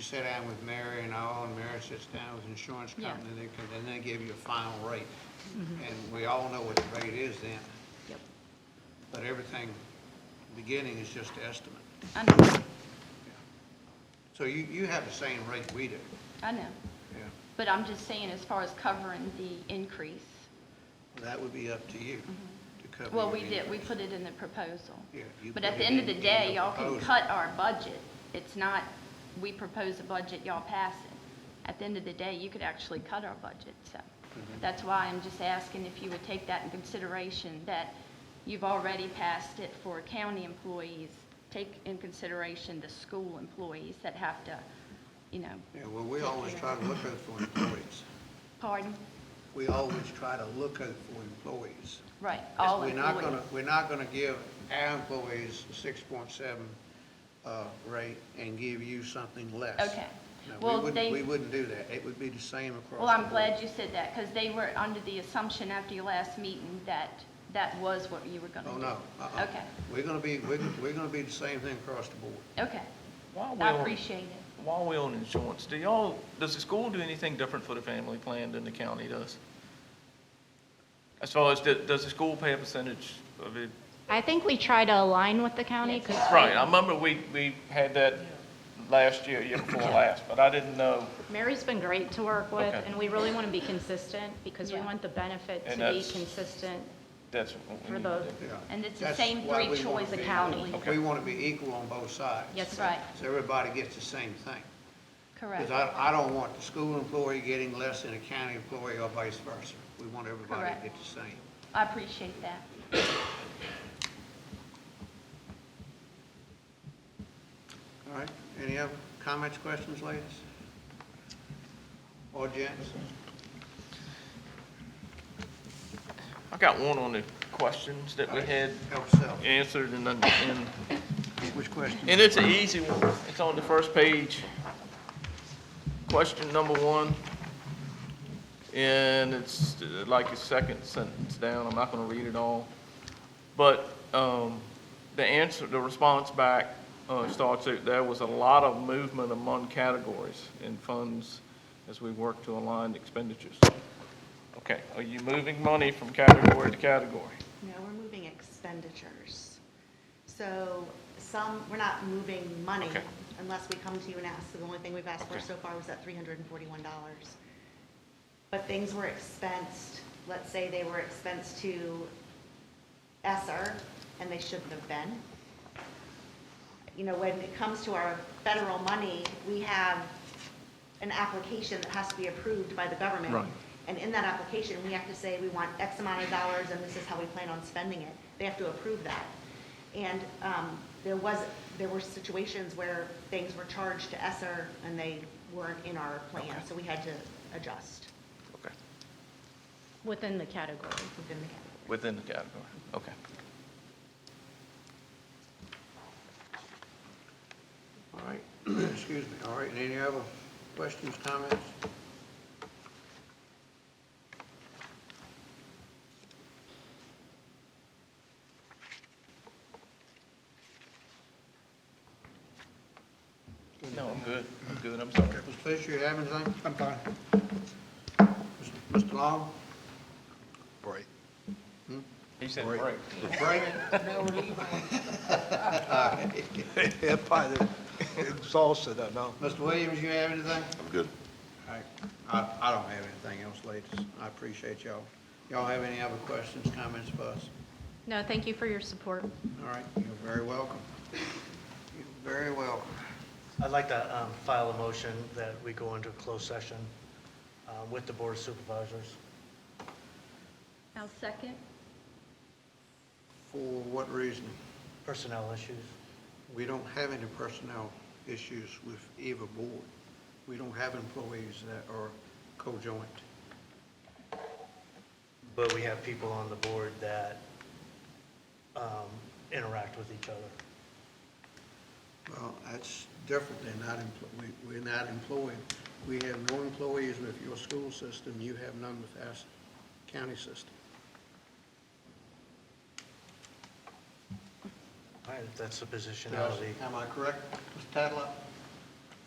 sat down with Mary and all, and Mary sits down with the insurance Yeah. Mm-hmm. company, and they, come- and they give you a final rate. And we all know what the rate is then, Yep. but everything beginning is just an estimate. I know, So you, you have the same rate we do, I know. yeah. But I'm just saying, as far as covering the increase, That would be up to you to cover. Mm-hmm. well, your we did, we increase. put it in the proposal. Yeah, you But put at the it end in- of the in day, the y'all can proposal. cut our budget. It's not, we propose a budget, y'all pass it. At the end of the day, you could actually cut our budget, so. Mm-hmm. That's why I'm just asking if you would take that in consideration, that you've already passed it for county employees. Take in consideration the school employees that have to, you know, Yeah, well, we always try to look out for employees. pardon? We always try to look out for employees. Right, all We're not gonna, employees. we're not gonna give our employees a six point seven, uh, rate and give you something less. Okay. No, we Well, wouldn't- they- We wouldn't do that. It would be the same across. Well, I'm the glad board. you said that, because they were under the assumption after your last meeting that that was what you were going to Oh, do. no. uh-uh. Okay, We're gonna be, we're, we're gonna be the same thing across the board. okay. While we I on, appreciate it. while we on insurance, do y'all, does the school do anything different for the family plan than the county does? As far as, the- does the school pay a percentage of it? I think we try to align with the county, because Right, I remember we, we had that last year, year before last, but I didn't know, Mary's been great to work with, Okay. and we really want to be consistent, because we Yeah. want the benefit to And be that's- consistent. that's. what we For need to do. the- Yeah. And it's the That's same why we three wanna choice be- accounting. Okay. We wanna be equal on both sides. Yes, That's right, So everybody gets the same thing. correct, Because I, I don't want the school employee getting less than a county employee or vice versa. We want everybody to Correct. get the same. I appreciate that. All right, any other comments, questions, ladies? Or gents? I got one on the questions that we had Help yourself. answered and, then- and, Which question? and it's an easy one. It's on the first page. Question number one. And it's uh, like a second sentence down. I'm not gonna read it all. But, um, the answer, the response back, uh, starts, out, there was a lot of movement among categories and funds as we work to align expenditures. Okay, are you moving money from category to category? No, we're moving expenditures. So some, we're not moving money Okay. unless we come to you and ask. So the only thing we've asked for Okay. so far was that three hundred and forty-one dollars. But things were expensed, let's say they were expensed to Esser, and they shouldn't have been. You know, when it comes to our federal money, we have an application that has to be approved by the government. Right. And in that application, we have to say, we want X amount of dollars, and this is how we plan on spending it. They have to approve that. And um, there was, there were situations where things were charged to Esser, and they weren't in our plan, so we had to adjust Okay. Within the category. within the category. Within the category, okay. All right, excuse me, all right, and any other questions, comments? No, I'm good, I'm good, I'm sorry. Mr. Fisher, you have anything? I'm fine. Mr. Long? Right. He said break. Break? Yeah, probably exhausted, I know. Mr. Williams, you have anything? I'm good. All right, I, I don't have anything else, ladies. I appreciate y'all. Y'all have any other questions, comments for us? No, thank you for your support. All right, you're very welcome. You're very welcome. I'd like to um, file a motion that we go into a closed session uh, with the Board of Supervisors. I'll second. For what reason? Personnel issues. We don't have any personnel issues with either board. We don't have employees that are co-joint. But we have people on the board that um, interact with each other. Well, that's different than not, empl- we- we're not employed. We have no employees with your school system, you have none with our s- county system. All right, That's the positionality. Am I correct, Mr. Tadlock?